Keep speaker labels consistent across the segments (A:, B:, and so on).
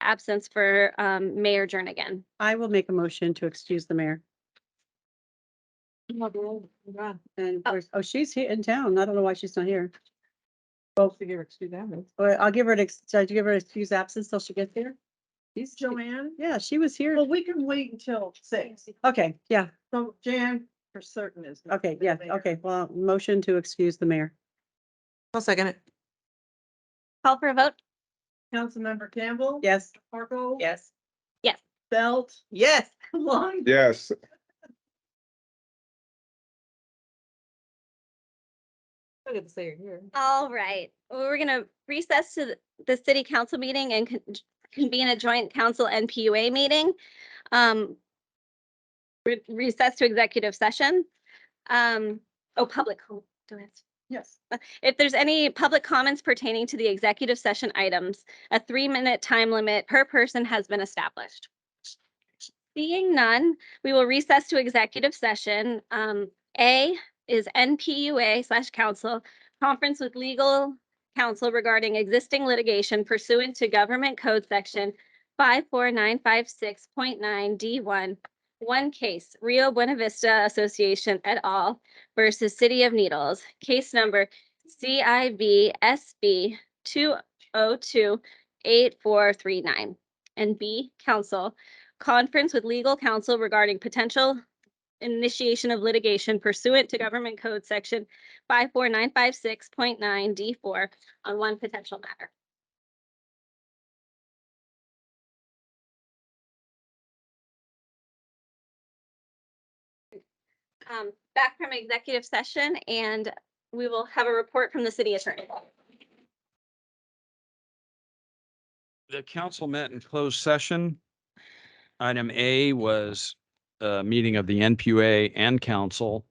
A: absence for um, Mayor Jernigan.
B: I will make a motion to excuse the mayor. And, of
A: Oh.
B: course- oh, she's here in town. I don't know why she's not here.
C: Both of you excuse that.
B: But I'll give her an, ex- should I give her an excuse absence till she gets here?
C: She's Joanne.
B: Yeah, she was here.
C: Well, we can wait until six.
B: Okay, yeah,
C: So Jan for certain is. not
B: okay,
C: the
B: yeah,
C: mayor.
B: okay. Well, motion to excuse the mayor.
D: I'll second it.
A: Call for a vote?
C: Councilmember Campbell.
B: Yes.
C: Harpo.
B: Yes.
C: Belt.
D: Yes.
C: Long.
E: Yes,
D: I get to say it here.
A: All right, Well, we're gonna recess to the- the city council meeting and con- convene a joint council and PUA meeting. Um, re- recess to executive session. Um, oh, public, co- do I have to-
C: Yes.
A: if there's any public comments pertaining to the executive session items, a three-minute time limit per person has been established. Seeing none, we will recess to executive session. Um, A is NPUA slash counsel, conference with legal counsel regarding existing litigation pursuant to Government Code Section five four nine five six point nine D one. One case, Rio Buena Vista Association et al. versus City of Needles, case number CIV SB two oh two eight four three nine. And B, counsel, conference with legal counsel regarding potential initiation of litigation pursuant to Government Code Section five four nine five six point nine D four on one potential matter. Um, back from executive session and we will have a report from the city attorney.
F: The council met in closed session. Item A was a meeting of the NPUA and council.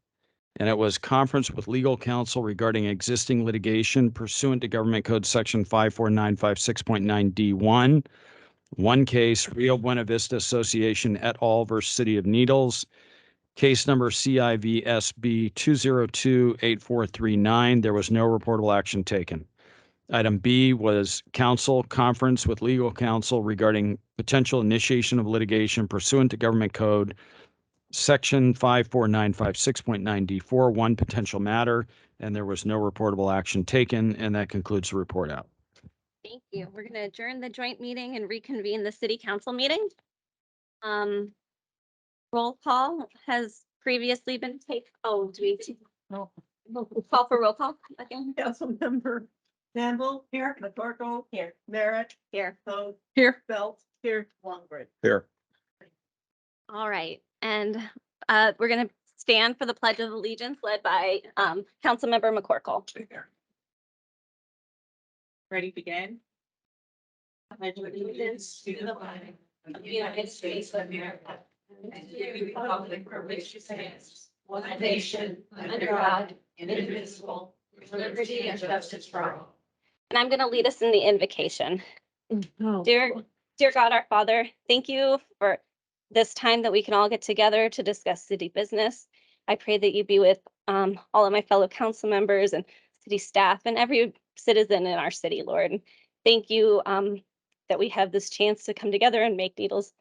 F: And it was conference with legal counsel regarding existing litigation pursuant to Government Code Section five four nine five six point nine D one. One case, Rio Buena Vista Association et al. versus City of Needles. Case number CIVSB two zero two eight four three nine. There was no reportable action taken. Item B was council conference with legal counsel regarding potential initiation of litigation pursuant to government code section five four nine five six point nine D four, one potential matter, and there was no reportable action taken, and that concludes the report out.
A: Thank you. We're going to adjourn the joint meeting and reconvene the city council meeting. Um, roll call has previously been taken. Oh, do we
C: No.
A: call for roll call again?
C: Councilmember Campbell. Here. McCorkle. Here. Merritt.
A: Here.
C: Vote.
B: Here.
C: Belt. Here. Longbridge.
E: here.
A: All right. And, uh, we're going to stand for the pledge of allegiance led by, um, Councilmember McCorkle.
G: Ready to begin? I pledge allegiance to the flag of the United States of America and to the republic for which it stands, one nation, under God, indivisible, with liberty and justice for all.
A: And I'm going to lead us in the invocation.
C: No.
A: Dear, dear God, our Father, thank you for this time that we can all get together to discuss city business. I pray that you be with um, all of my fellow council members and city staff and every citizen in our city, Lord. And Thank you um, that we have this chance to come together and make Needles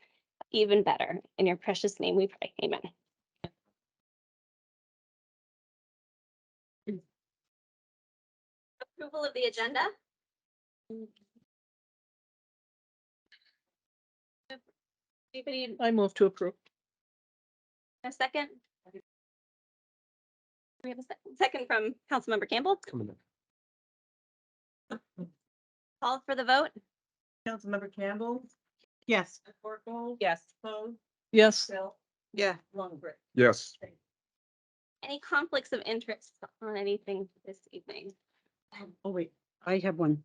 A: even better. In your precious name we pray. Amen. Approval of the agenda? Anybody
C: I move to approve.
A: a second? We have a sec- second from Councilmember Campbell. Call for the vote?
C: Councilmember Campbell.
B: Yes.
C: McCorkle.
G: Yes.
C: Vote.
B: Yes.
C: Belt.
D: Yeah.
C: Longbridge.
E: Yes.
A: Any conflicts of interest on anything this evening?
B: Oh, wait, I have one.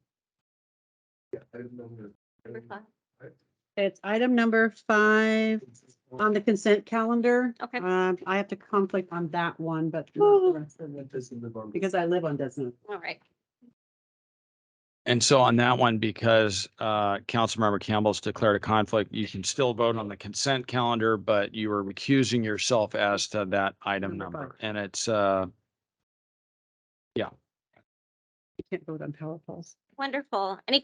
A: Number five.
B: It's item number five on the consent calendar.
A: Okay.
B: Um, I have to conflict on that one, but not the rest of it, because I live on Desmond.
A: All right.
F: And so on that one, because uh, Councilmember Campbell's declared a conflict, you can still vote on the consent calendar, but you were recusing yourself as to that item
B: Number
F: number. And it's, uh,
B: You can't vote on power polls.
A: Wonderful. Any